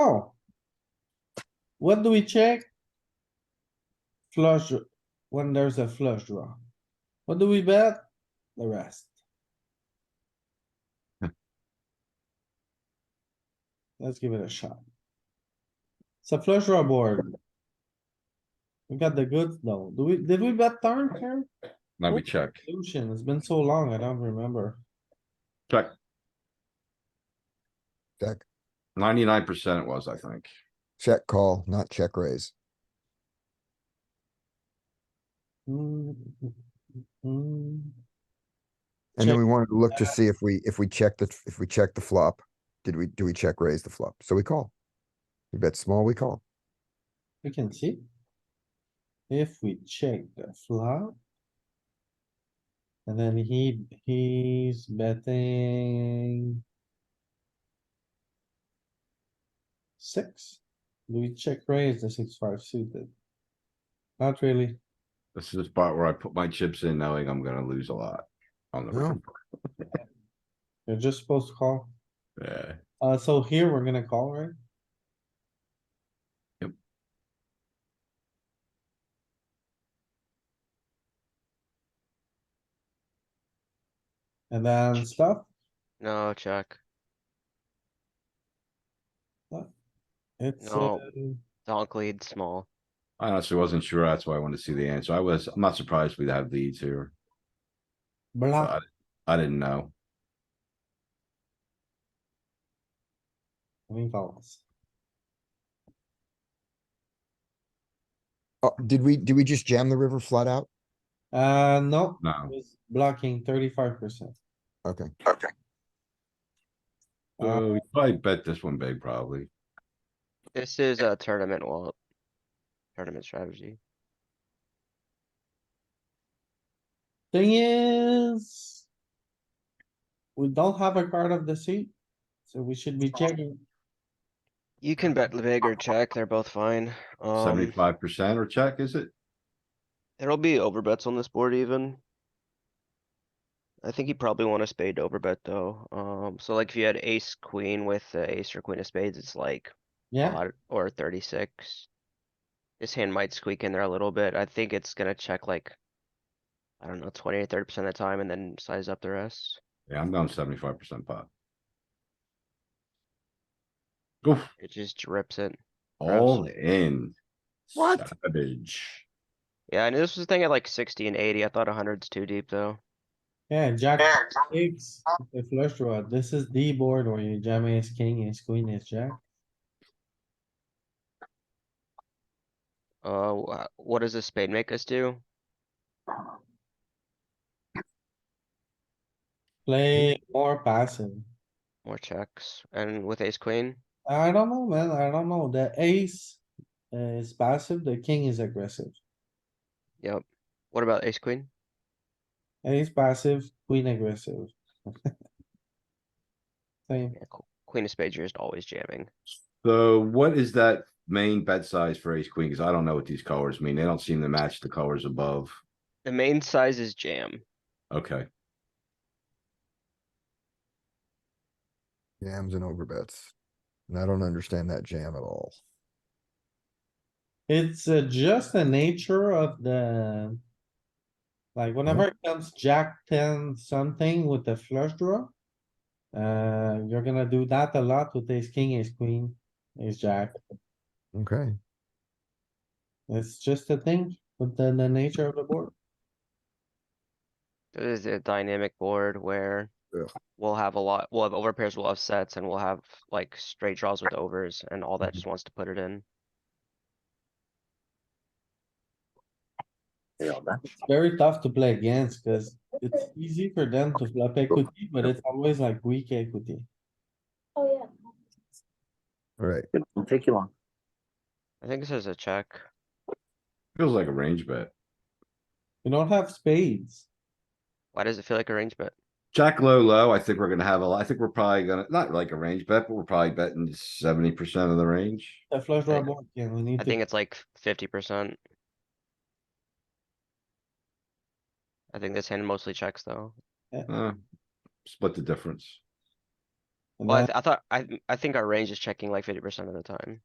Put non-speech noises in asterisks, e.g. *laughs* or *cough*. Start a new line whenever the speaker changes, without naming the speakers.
Oh. What do we check? Flush, when there's a flush draw. What do we bet? The rest. Let's give it a shot. It's a flush draw board. We got the goods though. Do we, did we bet turn here?
Now we check.
Lucian, it's been so long, I don't remember.
Check.
Check,
Ninety-nine percent it was, I think.
check call, not check raise.
Hmm, hmm,
And then
Check.
we wanted to look to see if we, if we check the, if we check the flop, did we, do we check raise the flop? So we call. We bet small, we call.
We can see. If we check the flop. And then he, he's betting. Six. Do we check raise the six five suited? Not really.
This is the spot where I put my chips in knowing I'm gonna lose a lot on
Oh.
the
Yeah.
river.
You're just supposed to call.
Yeah,
Uh, so here we're gonna call, right?
Yep.
And then stuff,
No, check.
it's,
No.
uh,
Donk lead small.
I honestly wasn't sure. That's why I wanted to see the answer. I was, I'm not surprised we have leads here.
block,
I I didn't know.
I mean, calls.
Oh, did we, did we just jam the river flat out?
Uh, no, it
No.
was blocking thirty-five percent.
Okay,
Uh,
Oh, I bet this one big probably.
This is a tournament wall. Tournament strategy.
thing is. We don't have a card of the seat, so we should be checking.
You can bet big or check, they're both fine. Um,
Seventy-five percent or check, is it?
there'll be overbets on this board even. I think you probably want a spade to overbet though. Um, so like if you had ace, queen with uh, ace or queen of spades, it's like
Yeah,
odd or thirty-six. This hand might squeak in there a little bit. I think it's gonna check like, I don't know, twenty or thirty percent of the time and then size up the rest.
Yeah, I'm going seventy-five percent pot. Oof,
It just drips it.
all in.
What?
Savage.
Yeah, and this was the thing at like sixty and eighty. I thought hundred's too deep though.
yeah, jack six, the flush draw. This is the board where you jam ace king, ace queen, ace jack.
Uh, wha- what does a spade make us do?
Play more passive.
More checks, and with ace queen,
I don't know, man. I don't know. The ace uh, is passive, the king is aggressive.
yep. What about ace queen?
Ace passive, queen aggressive. *laughs* Same.
Yeah, qu- Queen of spades, you're just always jamming.
So what is that main bet size for ace queen? Cause I don't know what these colors mean. They don't seem to match the colors above.
The main size is jam.
Okay,
jams and overbets. And I don't understand that jam at all.
It's uh, just the nature of the. Like whenever it comes jack ten something with the flush draw. Uh, you're gonna do that a lot with ace king, ace queen, ace jack.
Okay,
It's just a thing with the, the nature of the board.
It is a dynamic board where
Yeah.
we'll have a lot, we'll have over pairs, we'll have sets, and we'll have like straight draws with overs, and all that just wants to put it in.
very tough to play against because it's easy for them to flop equity, but it's always like weak equity.
Oh, yeah.
all right.
It'll take you long.
I think this is a check.
feels like a range bet.
You don't have spades.
Why does it feel like a range bet?
Jack low, low, I think we're gonna have a, lot- I think we're probably gonna, not like a range bet, but we're probably betting seventy percent of the range.
The flush draw
I-
board, yeah, we need
I
to,
think it's like fifty percent. I think this hand mostly checks though.
Uh, Split the difference.
and
Well, I,
then
th- I thought, I, I think our range is checking like fifty percent of the time.